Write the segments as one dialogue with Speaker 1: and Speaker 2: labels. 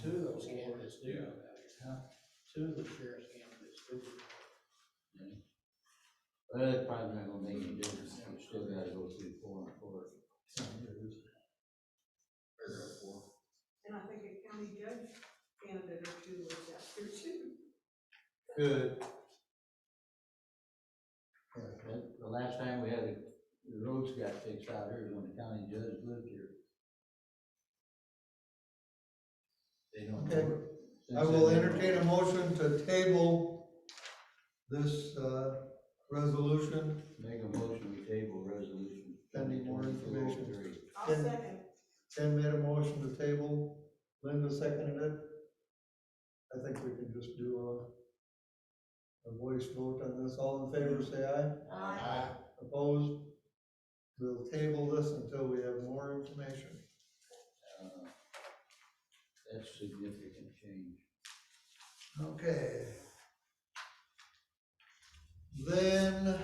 Speaker 1: Two of those candidates do know about it.
Speaker 2: Yeah.
Speaker 1: Two of the sheriff's candidates do.
Speaker 3: But that's probably not gonna make any difference, we still gotta go through four and four.
Speaker 4: And I think a county judge candidate or two was out there too.
Speaker 2: Good.
Speaker 3: But The last time we had, it, the roads got fixed out here, when the county judge lived here. They don't.
Speaker 2: Okay. I will entertain a motion to table this, uh, resolution.
Speaker 3: Make a motion, we table resolution.
Speaker 2: Pending more information.
Speaker 3: 2203.
Speaker 4: I'll
Speaker 2: Then-
Speaker 4: second.
Speaker 2: Ken made a motion to table, Linda seconded it. I think we can just do a, a voice vote on this, all in favor, say aye.
Speaker 4: Aye.
Speaker 2: Opposed? We'll table this until we have more information.
Speaker 3: Uh, That's significant change.
Speaker 2: Okay. Then.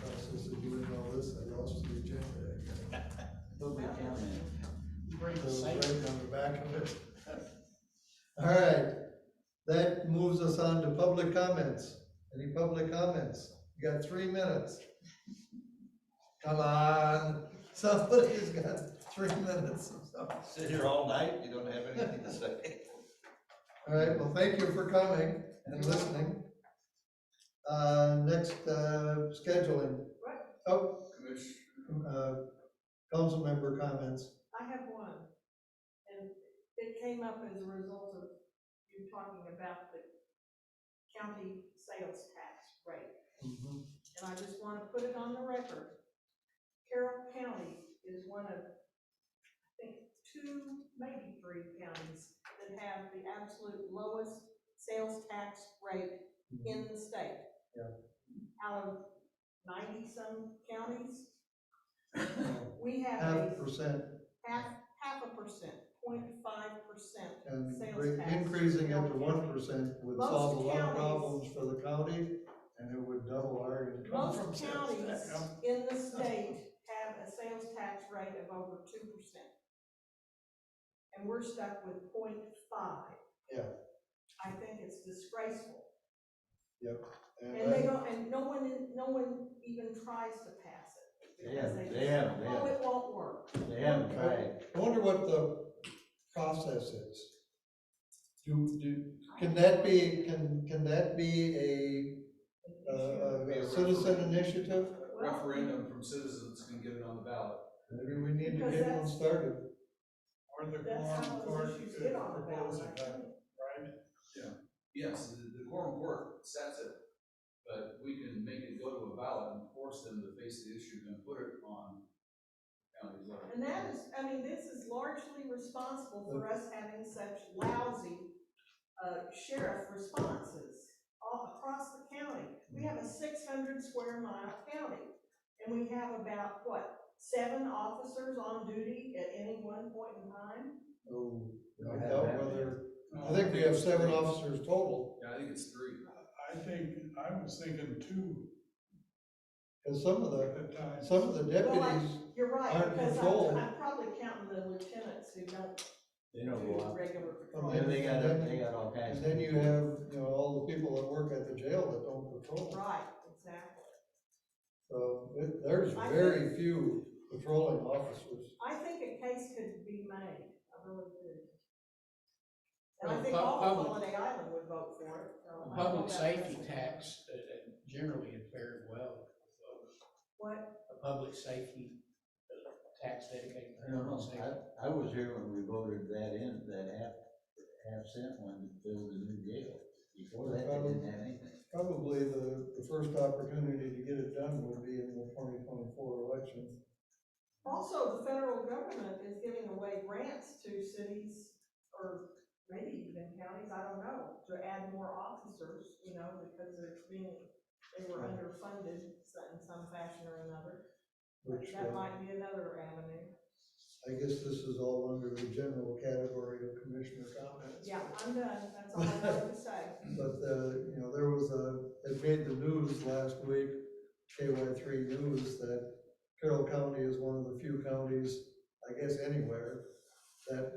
Speaker 2: Process of doing all this, I lost the agenda. again.
Speaker 3: Public comment.
Speaker 1: Bring the
Speaker 2: So,
Speaker 1: same.
Speaker 2: Right on the back of it. All right, that moves us on to public comments. Any public comments? You got three minutes. Come on, somebody's got three minutes or something.
Speaker 5: Sit here all night, you don't have anything to say.
Speaker 2: All right, well, thank you for coming and listening. Uh, next, uh, scheduling.
Speaker 4: Right.
Speaker 2: Oh, uh, council member comments.
Speaker 4: I have one, and it came up as a result of you talking about the county sales tax rate. And I just want to put it on the record. Carroll County is one of, I think, two, maybe three counties that have the absolute lowest sales tax rate in the state.
Speaker 2: Mhm. Yeah.
Speaker 4: Out of ninety-some counties, we have a
Speaker 2: Half percent
Speaker 4: half, half a percent, point five percent.
Speaker 2: and
Speaker 4: Sales
Speaker 2: re-
Speaker 4: tax.
Speaker 2: increasing it to one percent would
Speaker 4: Most
Speaker 2: solve a lot of
Speaker 4: counties-
Speaker 2: problems for the county and it would double our income
Speaker 4: Most
Speaker 2: from sales
Speaker 4: counties
Speaker 2: tax.
Speaker 4: in the state have a sales tax rate of over two percent. And we're stuck with point five.
Speaker 2: Yeah.
Speaker 4: I think it's disgraceful. And they
Speaker 2: And
Speaker 4: don't, and no one, no one even tries to pass it.
Speaker 3: Yeah,
Speaker 4: because
Speaker 3: they haven't, they
Speaker 4: Oh,
Speaker 3: haven't,
Speaker 4: it won't work.
Speaker 3: they haven't tried.
Speaker 2: I wonder what the process is. Do, do, Can that be, can, can that be a, uh, a a citizen initiative?
Speaker 6: referendum from citizens can get it on the ballot.
Speaker 2: Maybe we need to get one started.
Speaker 7: Or the
Speaker 4: That's how
Speaker 7: quorum court
Speaker 4: those issues
Speaker 7: could
Speaker 4: get on the ballot,
Speaker 7: propose
Speaker 4: I
Speaker 7: it,
Speaker 4: think.
Speaker 7: right?
Speaker 6: Yes, the, the quorum court sets it, but we can make it go to a ballot and force them to face the issue and put it on county level.
Speaker 4: And that is, I mean, this is largely responsible for us having such lousy uh, sheriff responses all across the county. We have a six hundred square mile county, and we have about, what, seven officers on duty at any one point in time?
Speaker 2: Oh,
Speaker 3: We don't
Speaker 2: I
Speaker 3: have
Speaker 2: doubt
Speaker 3: that.
Speaker 2: whether, I think we have seven officers total,
Speaker 6: Yeah, I think it's three.
Speaker 7: I think, I was thinking two
Speaker 2: because some of the,
Speaker 7: at the time.
Speaker 2: some of the deputies,
Speaker 4: You're right,
Speaker 2: Aren't
Speaker 4: because
Speaker 2: controlled.
Speaker 4: I'm, I'm probably counting the lieutenants who don't
Speaker 3: They don't go
Speaker 4: do
Speaker 3: out.
Speaker 4: regular.
Speaker 2: Oh,
Speaker 3: Yeah, they got, they got all kinds.
Speaker 2: and
Speaker 3: of-
Speaker 2: then you have, you know, all the people that work at the jail that don't patrol.
Speaker 4: Right, exactly.
Speaker 2: So it- there's
Speaker 4: I
Speaker 2: very few patrolling officers.
Speaker 4: I think a case could be made, I really do. And
Speaker 1: Well,
Speaker 4: I think
Speaker 1: pub-
Speaker 4: all of
Speaker 1: public-
Speaker 4: Holiday Island would vote for it. so I think
Speaker 1: Public
Speaker 4: that's-
Speaker 1: safety tax uh, uh, generally had fared well with those.
Speaker 4: What,
Speaker 1: A public safety uh, tax dedicated. to
Speaker 3: I don't
Speaker 1: public
Speaker 3: know,
Speaker 1: safety.
Speaker 3: I, I was here when we voted that in, that half, half cent one to build a new jail. Before that, they didn't have anything.
Speaker 2: Probably the, the first opportunity to get it done would be in the twenty twenty-four election.
Speaker 4: also, the federal government is giving away grants to cities, or maybe even counties, I don't know, to add more officers, you know, because they're being, they were underfunded so- in some fashion or another.
Speaker 2: Which,
Speaker 4: That
Speaker 2: uh,
Speaker 4: might be another avenue.
Speaker 2: I guess this is all under the general category of commissioner comments.
Speaker 4: Yeah, I'm done, that's all I have to say.
Speaker 2: But, uh, you know, there was a, it made the news last week, KY three news, that Carroll County is one of the few counties, I guess anywhere, that